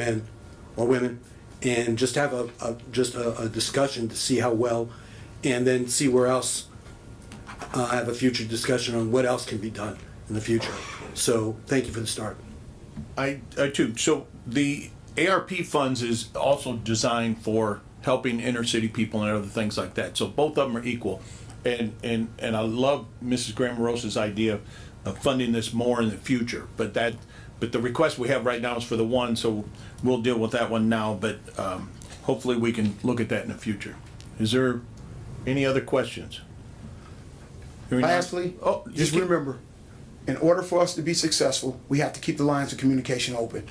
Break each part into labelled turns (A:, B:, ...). A: men or women and just have a, a just a, a discussion to see how well and then see where else uh, have a future discussion on what else can be done in the future. So thank you for the start.
B: I, I too. So the ARP funds is also designed for helping inner city people and other things like that. So both of them are equal. And, and, and I love Mrs. Grammarosa's idea of funding this more in the future, but that, but the request we have right now is for the one, so we'll deal with that one now, but, um, hopefully we can look at that in the future. Is there any other questions? Hearing none-
C: Lastly,
B: Oh, you
C: just
B: can-
C: remember, in order for us to be successful, we have to keep the lines of communication open.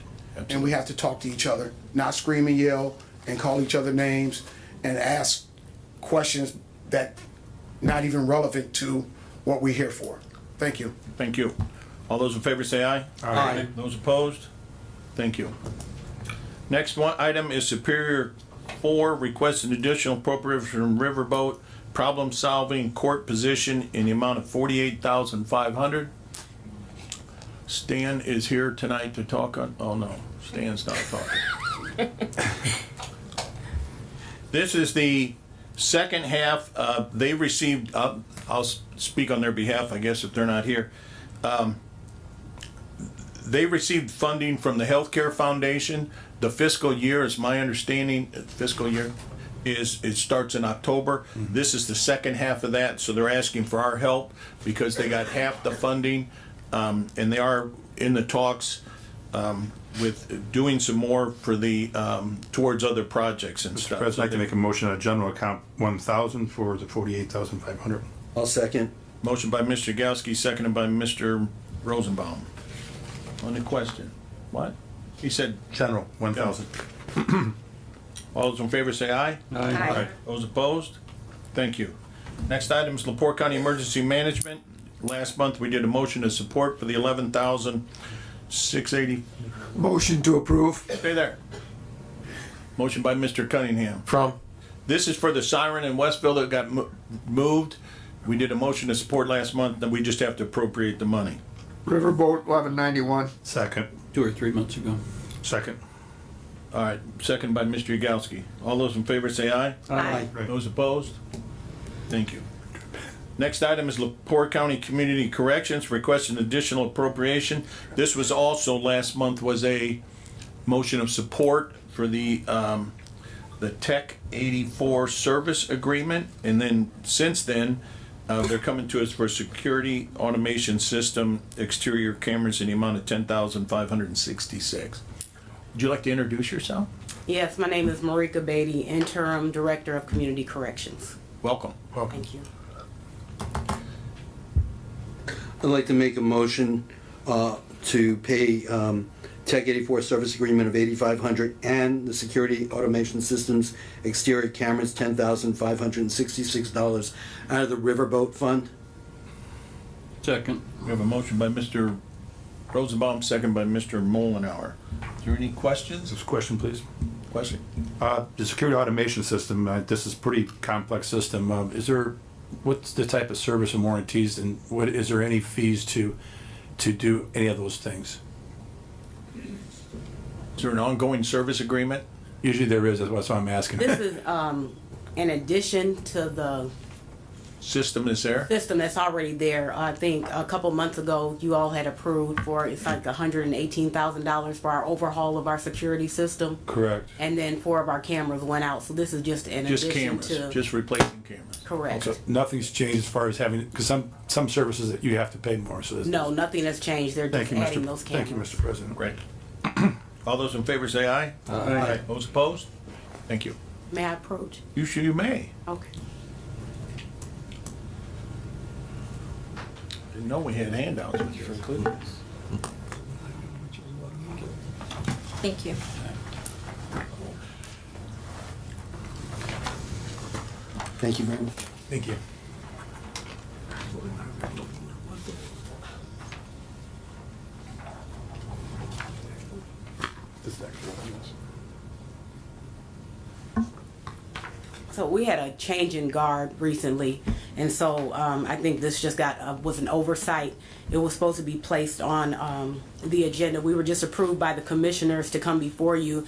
C: And we have to talk to each other, not scream and yell and call each other names and ask questions that not even relevant to what we're here for. Thank you.
B: Thank you. All those in favor say aye.
C: Aye.
B: Those opposed? Thank you. Next one, item is Superior Four, request an additional appropriation from Riverboat, problem solving court position in the amount of forty-eight thousand five hundred. Stan is here tonight to talk on, oh no, Stan's not talking. This is the second half, uh, they received, uh, I'll s- speak on their behalf, I guess, if they're not here. Um, They received funding from the Healthcare Foundation. The fiscal year, is my understanding, uh, fiscal year is, it starts in October. This is the second half of that, so they're asking for our help because they got half the funding. Um, and they are in the talks, um, with doing some more for the, um, towards other projects and stuff.
D: President, I'd like to make a motion on general account one thousand for the forty-eight thousand five hundred.
A: I'll second.
B: Motion by Mr. Yagowski, seconded by Mr. Rosenbaum. On the question. What? He said,
D: General, one thousand.
B: all those in favor say aye.
E: Aye.
B: Those opposed? Thank you. Next item is Lepore County Emergency Management. Last month, we did a motion of support for the eleven thousand six eighty.
F: Motion to approve.
B: Stay there. Motion by Mr. Cunningham.
F: From.
B: This is for the siren in Westville that got mo- moved. We did a motion to support last month, then we just have to appropriate the money.
F: Riverboat eleven ninety-one.
D: Second,
G: two or three months ago.
D: second.
B: All right, second by Mr. Yagowski. All those in favor say aye.
E: Aye.
B: Those opposed? Thank you. Next item is Lepore County Community Corrections, requesting additional appropriation. This was also, last month was a motion of support for the, um, the Tech eighty-four service agreement. And then, since then, uh, they're coming to us for security automation system, exterior cameras in the amount of ten thousand five hundred and sixty-six. Would you like to introduce yourself?
E: Yes, my name is Marika Beatty, interim director of community corrections.
B: Welcome.
E: Thank you.
A: I'd like to make a motion uh, to pay um, Tech 84 service agreement of 8,500 and the security automation systems exterior cameras $10,566 out of the Riverboat Fund.
G: Second.
B: We have a motion by Mr. Rosenbaum, second by Mr. Mullenhour. Is there any questions?
D: This question, please.
B: Question?
D: Uh, the security automation system, uh, this is pretty complex system. Uh, is there, what's the type of service and warranties and what, is there any fees to, to do any of those things?
B: Is there an ongoing service agreement?
D: Usually there is, that's why I'm asking.
E: This is um, in addition to the
B: System is there?
E: system that's already there. I think a couple months ago, you all had approved for, it's like $118,000 for our overhaul of our security system.
D: Correct.
E: And then four of our cameras went out, so this is just in
B: Just
E: addition
B: cameras,
E: to.
B: just replacing cameras?
E: Correct.
D: So nothing's changed as far as having, because some, some services that you have to pay more, so. this-
E: No, nothing has changed. They're
D: Thank
E: just
D: you,
E: adding those
D: Mr.
E: cameras.
D: Thank you, Mr. President.
B: Right. All those in favor say aye. Aye. Those opposed? Thank you.
E: May I approach?
B: You should, you may.
E: Okay.
B: Didn't know we had handouts, but you're included.
H: Thank you.
A: Thank you very much.
D: Thank you.
E: So we had a change in guard recently, And so um, I think this just got, uh, was an oversight. It was supposed to be placed on um, the agenda. We were just approved by the commissioners to come before you